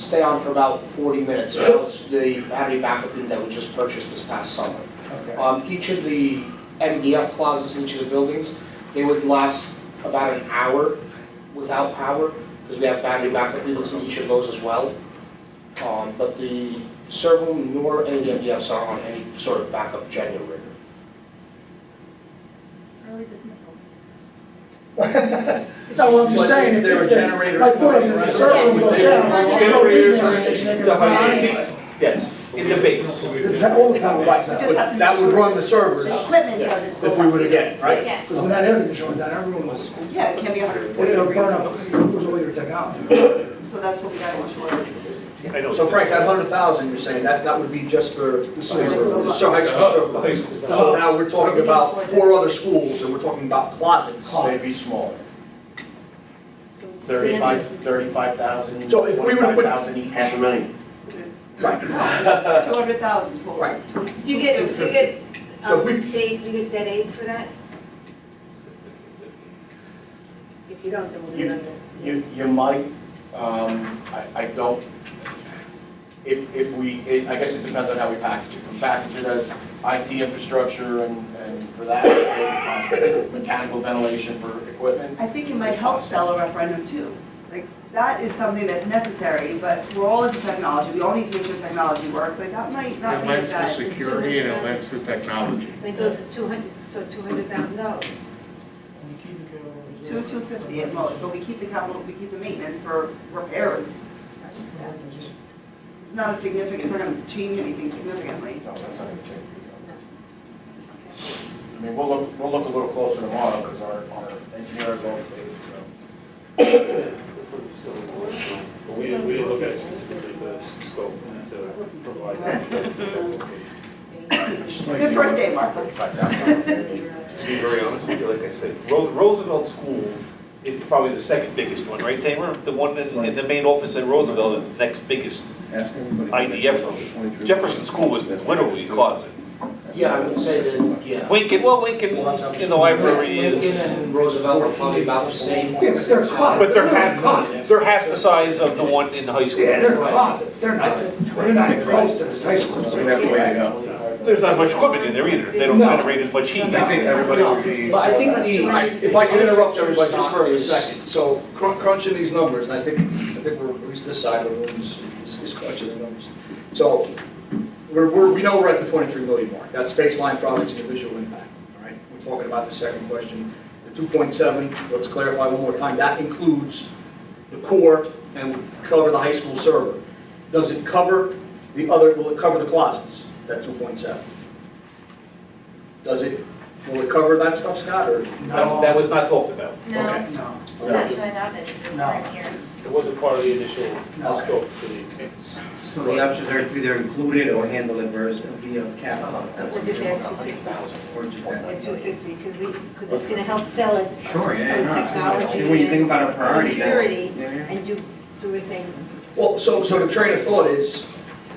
stay on for about 40 minutes. That was the Hattie McApeen that we just purchased this past summer. Okay. Um, Each of the MDF closets in each of the buildings, they would last about an hour without power, because we have battery backup units in each of those as well. Um, But the servo nor any MDFs are on any sort of backup generator. Early dismissal. No, I'm just But saying, there if there were were generators My point is, if going the server around, goes there down, were there's no reason generators for running. it to The high continue. speed, yes, in the base. The pa- All the power lights out, Just have to But that would run the servers The equipment doesn't go if we up. were to get it, right? Yeah, 'Cause when that air conditioner went down, everyone was, yeah, it can be 140 it'll degrees. burn up, you'll lose all your technology. So that's what we gotta ensure is. I know. So Frank, that hundred thousand, you're saying, that, that would be just for the server. So high school Uh, server. So now we're talking about four other schools, and we're talking about closets. They'd be smaller. Thirty-five, thirty-five thousand, So if we were to twenty-five put- thousand each. Half a million. Right. 200,000 total. Right. Do you get, do you get, So um, we- state, do you get dead aid for that? If you don't, then we'll get You- under. You, you might, um, I, I don't, if, if we, it- I guess it depends on how we package it. If we package it as IT infrastructure and, and for that, or, um, mechanical ventilation for equipment. I think it might help sell a referendum too. Like, that is something that's necessary, but we're all into technology, we all need to make sure technology works, like, that might not It be lends the that. security and it lends the technology. And it goes to two hundred, so two hundred thousand dollars. Two, two fifty at most, but we keep the capital, we keep the maintenance for repairs. It's not a significant, it's not gonna change anything significantly. No, that's not gonna change these numbers. I mean, we'll look, we'll look a little closer tomorrow, because our, our engineers all, so. But we didn't, we didn't look at it specifically for this scope to provide that. Good first day, Mark. To be very honest with you, like I said, Ro- Roosevelt School is probably the second biggest one, right, Tamer? The one in, in the main office in Roosevelt is the next biggest IDF room. Jefferson School was literally a closet. Yeah, I would say that, yeah. Lincoln, well, Lincoln, in the library is, Lincoln and Roosevelt are probably about the same. Yeah, but they're closets. but they're half, closets. they're half the size of the one in the high school. Yeah, they're closets, they're not, they're not even close to this high school. There's not much equipment in there either, they don't No. generate as much heat. No. everybody would be. But I think the. If I could interrupt everybody just for a second, so crun- crunching these numbers, and I think, I think we're, at least this side of the room is, is- is crunching the numbers. So, we're, we're, we know we're at the twenty-three million mark, that's baseline projects and the visual impact, all right? We're talking about the second question, the two point seven, let's clarify one more time, that includes the core and would cover the high school server. Does it cover the other, will it cover the closets, that two point seven? Does it, will it cover that stuff, Scott, or? That that was not talked about. Okay. No. It's actually not visible No. right here. It wasn't part of the initial No. scope for the. So the options are either included or handle it versus via capital. That's We'll what get we're that talking two fifty, about, or just that. at two fifty, because we, because it's gonna help sell it. Sure, yeah, From no, technology absolutely. When you think about a priority. then- Security, Yeah, yeah. and you, so we're saying, Well, so, so the train of thought is,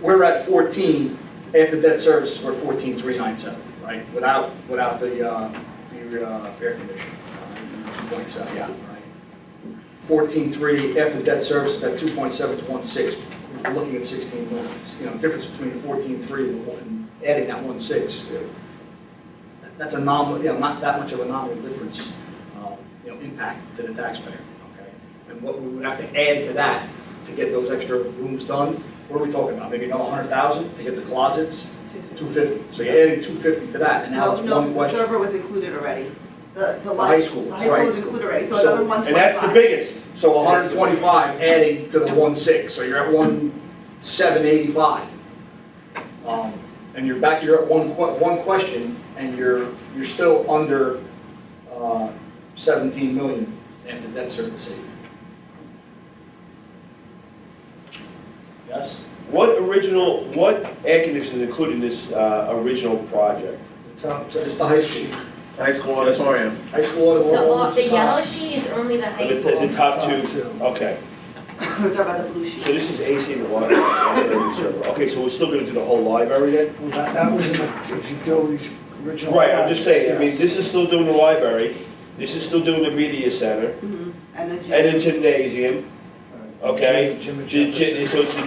we're at 14, after debt service, we're 14,397, right? Without, without the, uh, the uh, air conditioning, uh, 2.7, yeah, right? 14.3, after debt service, that 2.7 is 1.6, we're looking at 16 million. It's, You know, difference between 14.3 and one- adding that 1.6, uh, that's a nominal, you know, not that much of a nominal difference, uh, you know, impact to the taxpayer, okay? And what we would have to add to that to get those extra rooms done, what are we talking about? Maybe another hundred thousand to get the closets, two fifty. two fifty. So you're adding two fifty to that, and now No, it's no, one the question. server was included already. The, the. high school, The high school was right. included already, so So- another one twenty-five. And that's the biggest. So hundred and twenty-five adding to the one six, so you're at one seven eighty-five. Um, and you're back, you're at one que- one question, and you're, you're still under, uh, seventeen million after debt service. saved. Yes? What original, what air conditioning is included in this uh, original project? Top, just the high school, High school auditorium. high school uh, The, all- auditorium. the yellow sheet is only the high Is it school. top Top two? two. Okay, We're talking about the blue sheet. so this is AC and water. Okay, so we're still gonna do the whole library then? Well, that, that was in the, if you do these original. Right, I'm just saying, I mean, Yes. Uh, this is still doing the library, this is still doing the media center, Mhm. And the gym. and the gymnasium, okay? Jim- Jim and Gy- gy- Jefferson. So it's the